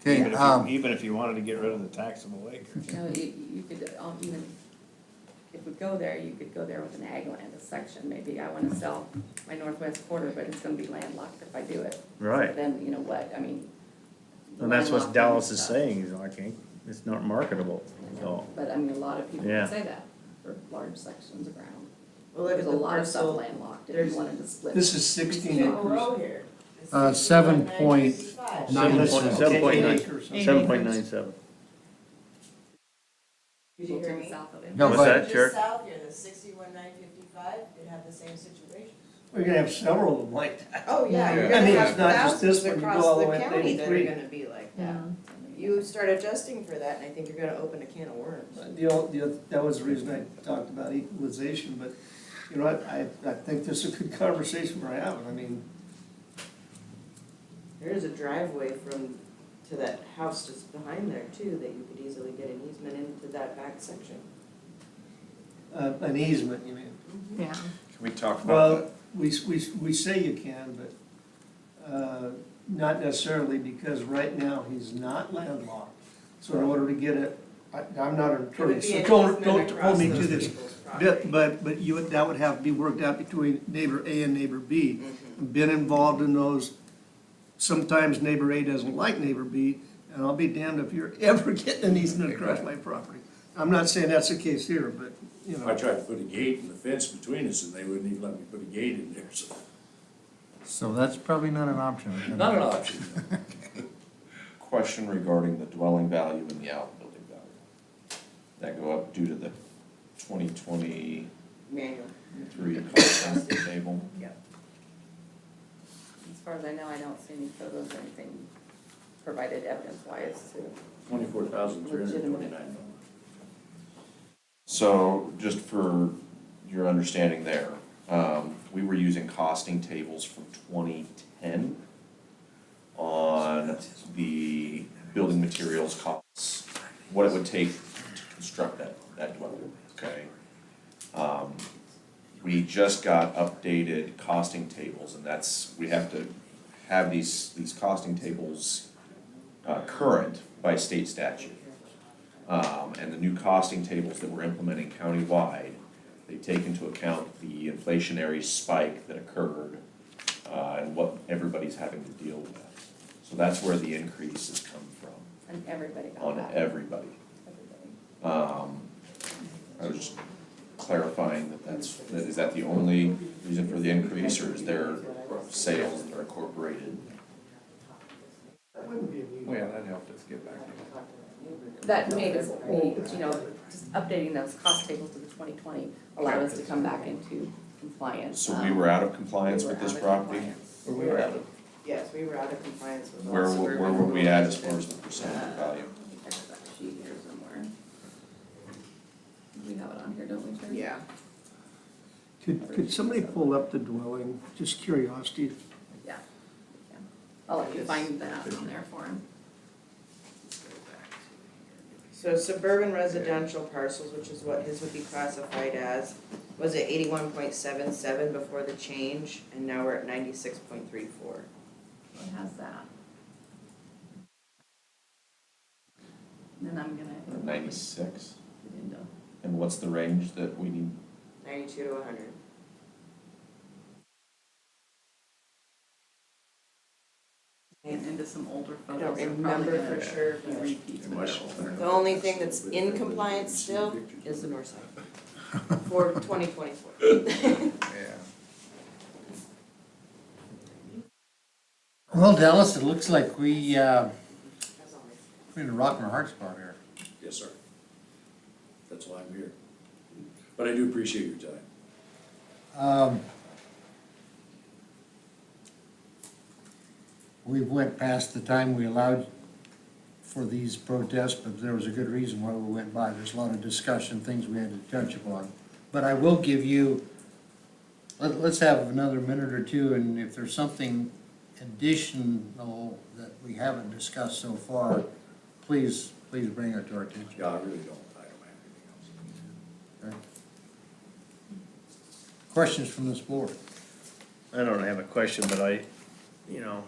Okay, Even if you- um, Even if you wanted to get rid of the taxable acres. No, you, you could, um, even, if we go there, you could go there with an ag land, a section, maybe I wanna sell my northwest quarter, but it's gonna be landlocked if I do it. Right. Then, you know what, I mean. And that's what landlocked Dallas is stuff. saying, is I can't, it's not marketable, so. But I mean, a lot of people Yeah. would say that for large sections of ground. Well, look There's at a the lot of stuff parcel. landlocked if There's- you wanted to split. This is sixteen acres. here. Uh, seven point- Seven Nine point- acres. seven point nine. Acres. Seven point nine seven. Did you hear People me? to the south of it. No, What's but- that, Jared? Just south here, the sixty-one nine fifty-five, it had the same situation. We're gonna have several of them like that. Oh, yeah, Yeah. you're I gonna mean, have it's not just this thousands one, you go across all the the way up to county that are 83. gonna be like that. You start adjusting for that, and I think you're gonna open a can of worms. The, old- the, oth- that was the reason I talked about equalization, but, you know, I, I, I think this is a good conversation we're having, I mean, There is a driveway from, to that house just behind there too, that you could easily get an easement into that back section. uh, an easement, you mean. Yeah. Can we talk about Well, that? we, s- we, s- we say you can, but, uh, not necessarily, because right now, he's not landlocked. So in order to get it, I, I'm not an It would attorney, be so an don't, easement don't hold across me to those this. people's But, property. but, but you, would- that would have to be worked out between neighbor A and neighbor B. Mm-hmm. Been involved in those, sometimes neighbor A doesn't like neighbor B, and I'll be damned if you're ever getting an easement across my property. I'm not saying that's the case here, but, you I know, tried to put a gate and a fence between us and they wouldn't even let me put a gate in there, so. So that's probably not an option. Not an option. Question regarding the dwelling value and the outbuilding value. That go up due to the twenty twenty-three Manual. cost estimate table. As far as I know, I don't see any photos or anything provided evidence why it's to. Twenty-four thousand three hundred twenty-nine dollars. So just for your understanding there, um, we were using costing tables from twenty ten on the building materials costs, what it would take to construct that, that dwelling, okay? Um, we just got updated costing tables and that's, we have to have these, these costing tables uh, current by state statute. Um, and the new costing tables that we're implementing countywide, they take into account the inflationary spike that occurred, uh, and what everybody's having to deal with. So that's where the increase has come from, And everybody got on that. everybody. Everybody. Um, I was just clarifying that that's, that is that the only reason for the increase, or is there sales that are incorporated? Well, yeah, that helped us get back. That made us, be, you know, just updating those cost tables to the twenty twenty allowed us to come back into compliance. Um, So we were out of compliance with this property? Where we were at, Yes, we were out of compliance with. Where, also were- where were we at as far as the percentage Uh, of value? I think that's that sheet here somewhere. We have it on here, don't we, Jerry? Yeah. could, could somebody pull up the dwelling, just curiosity? Yeah. Yeah. I'll let you find that on there for him. So suburban residential parcels, which is what his would be classified as, was at eighty-one point seven seven before the change, and now we're at ninety-six point three four. It has that. And then I'm gonna. Ninety-six? Get into- And what's the range that we need? Ninety-two to hundred. Get into some older I photos. don't They're probably remember for gonna sure, be but repeats, In but- Washington. the only thing that's in compliance still is the north side for twenty twenty-four. yeah. Well, Dallas, it looks like we, uh, we're in a rock and a hard spot here. Yes, sir. That's why I'm here. But I do appreciate your time. Um, We went past the time we allowed for these protests, but there was a good reason why we went by. There's a lot of discussion, things we had to touch upon. But I will give you, let, let's have another minute or two, and if there's something additional that we haven't discussed so far, please, please bring it to our attention. Yeah, I really don't, I don't have anything else. okay? Questions from this board? I don't have a question, but I, you know,